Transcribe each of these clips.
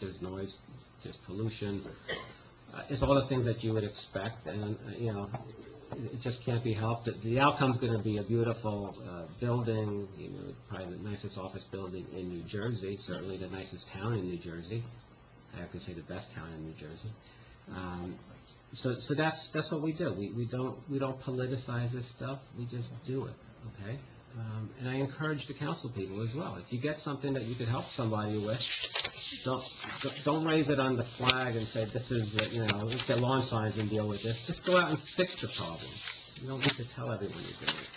there's noise, there's pollution. Uh, It's all the things that you would expect, and, uh, you know, it it just can't be helped. The- The outcome's going to be a beautiful uh, building, you know, probably the nicest office building in New Jersey, certainly the nicest town in New Jersey. I have to say the best town in New Jersey. Um, So, so that's, that's what we do. We, we don't, we don't politicize this stuff, we just do it, okay? Um, And I encourage the council people as well. If you get something that you could help somebody with, don't, don't- don't raise it on the flag and say, this is, uh, you know, let's get lawn signs and deal with this. Just go out and fix the problem. You don't need to tell everyone you're doing it.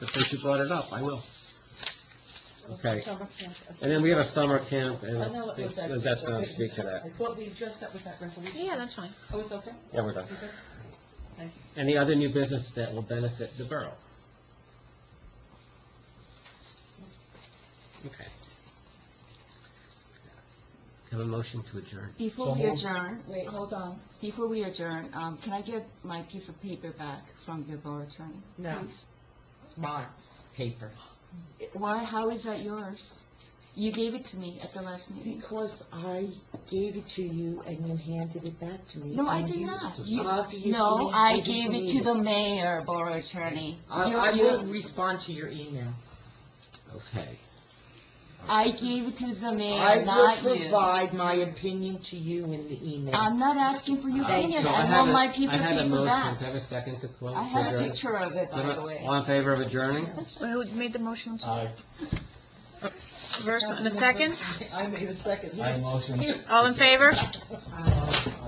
But since you brought it up, I will. Okay. Summer camp. And then we have a summer camp, and I know it was that- that's going to speak to that. I thought we addressed that with that resolution. Yeah, that's fine. Oh, it's okay? Yeah, we're done. Okay. Thank you. Any other new business that will benefit the borough? Okay. Have a motion to adjourn. Before we adjourn, wait, hold on. Before we adjourn, um, can I get my piece of paper back from the borough attorney? No. please? It's my paper. Why, how is that yours? You gave it to me at the last meeting. Because I gave it to you and you handed it back to me. No, I and did you- not. You- After you No, deleted- I you gave it to deleted the mayor, borough attorney. I, You- I you- will respond to your email. Okay. I gave it to the I mayor, will not you. Um, provide my opinion to you in the email. I'm not asking for your opinion. So I had want a- my piece I of had a paper motion. Do back. I have a second to close? I have a Adjourn? picture of it, by the way. Uh, All in favor of adjourning? Who made the motion? First and a second? I made a second. All in favor? Aye.